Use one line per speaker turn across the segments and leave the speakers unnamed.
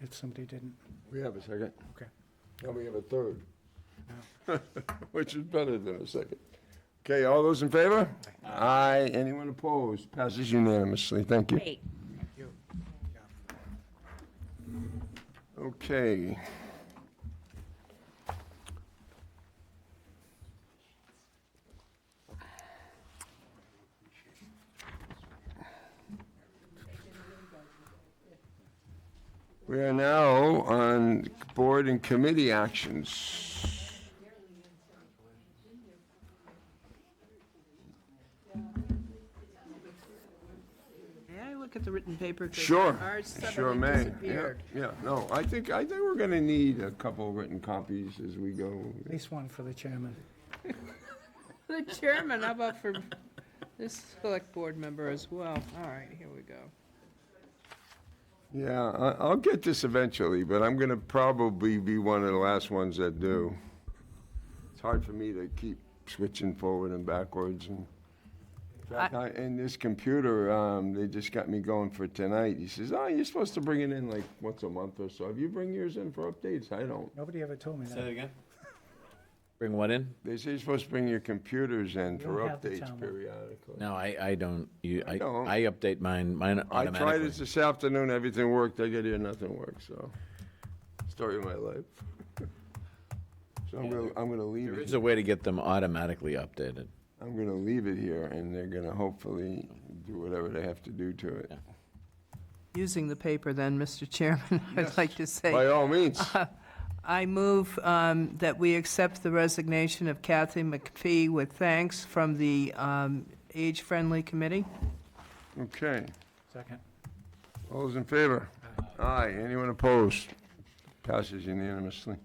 if somebody didn't.
We have a second.
Okay.
And we have a third. Which is better than a second. Okay, all those in favor? Aye. Anyone opposed? Passes unanimously. Thank you.
Great.
Okay. We are now on board and committee actions.
May I look at the written paper? 'Cause
Sure,
Ours
sure
suddenly
may. Yeah,
disappeared.
yeah, no, I think, I think we're gonna need a couple written copies as we go.
At least one for the chairman.
The chairman, how about for this select board member as well? All right, here we go.
Yeah, I, I'll get this eventually, but I'm gonna probably be one of the last ones that do. It's hard for me to keep switching forward and backwards and. In fact, I- And this computer, um, they just got me going for tonight. He says, oh, you're supposed to bring it in like once a month or so. Have you bring yours in for updates? I don't.
Nobody ever told me
Say
that.
it again. Bring what in?
They say you're supposed to bring your computers in for
don't have the
updates
time.
periodically.
No, I, I don't. You, I,
don't.
I update mine, mine
I tried
automatically.
it this afternoon, everything worked, I get here, nothing worked, so, story of my life. So I'm gonna, I'm gonna leave
There
it,
is a way to get them automatically updated.
I'm gonna leave it here, and they're gonna hopefully do whatever they have to do to it.
Using the paper then, Mr. Chairman, I'd like to
By
say,
all means,
I move um, that we accept the resignation of Kathy McPhee with thanks from the um, Age Friendly Committee.
okay,
Second.
all those in favor? Aye, anyone opposed? Passes unanimously.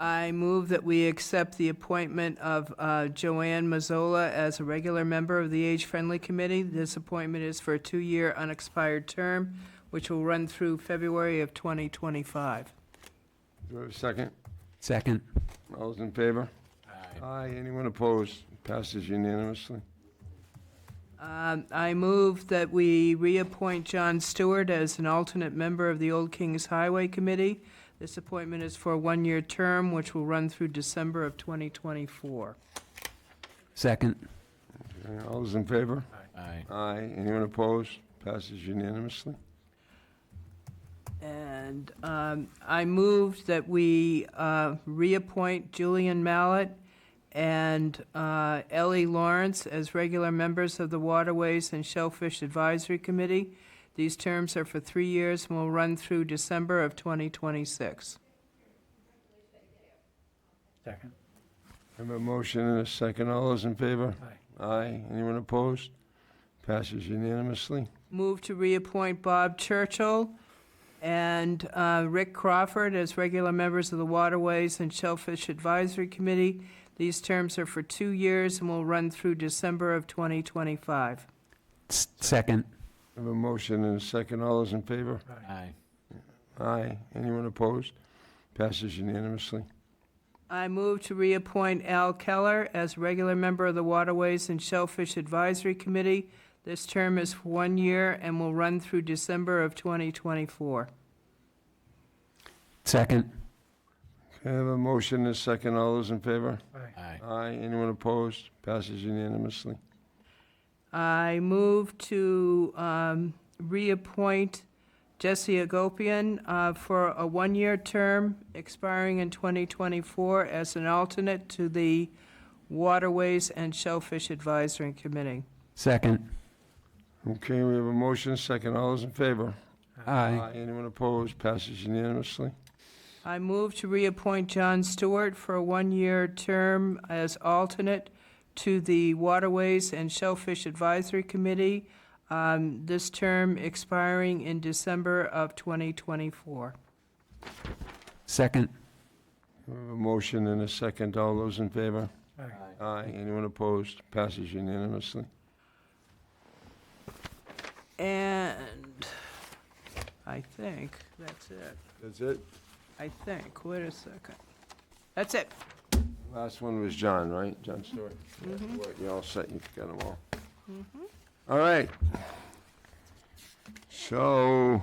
I move that we accept the appointment of uh, Joanne Mazzola as a regular member of the Age Friendly Committee. This appointment is for a two-year unexpired term, which will run through February of 2025.
Do I have a second?
Second.
All those in favor? Aye, anyone opposed? Passes unanimously.
Um, I move that we reappoint John Stewart as an alternate member of the Old Kings Highway Committee. This appointment is for a one-year term, which will run through December of 2024.
Second.
Okay, All those in favor?
Aye.
Aye. Anyone opposed? Passes unanimously.
And um, I moved that we uh, reappoint Julian Mallett and uh, Ellie Lawrence as regular members of the Waterways and Shellfish Advisory Committee. These terms are for three years and will run through December of 2026.
Second.
I Have a motion and a second. All those in favor?
Aye.
Aye. Anyone opposed? Passes unanimously.
Move to reappoint Bob Churchill and uh, Rick Crawford as regular members of the Waterways and Shellfish Advisory Committee. These terms are for two years and will run through December of 2025.
S- Second.
I Have a motion and a second. All those in favor?
Aye.
Aye. Anyone opposed? Passes unanimously.
I move to reappoint Al Keller as regular member of the Waterways and Shellfish Advisory Committee. This term is for one year and will run through December of 2024.
Second.
Okay, I Have a motion and a second. All those in favor?
Aye.
Aye. Anyone opposed? Passes unanimously.
I move to um, reappoint Jesse Agopian uh, for a one-year term expiring in 2024 as an alternate to the Waterways and Shellfish Advisory Committee.
Second.
Okay, we have a motion, and a second. All those in favor?
Aye.
Anyone opposed? Passes unanimously.
I move to reappoint John Stewart for a one-year term as alternate to the Waterways and Shellfish Advisory Committee, um, this term expiring in December of 2024.
Second.
We have a motion and a second. All those in favor?
Aye.
Aye. Anyone opposed? Passes unanimously.
And I think that's it.
That's it.
I think, wait a second. That's it.
Last one was John, right? John Stewart. You're all set, you've got them all. All right. So,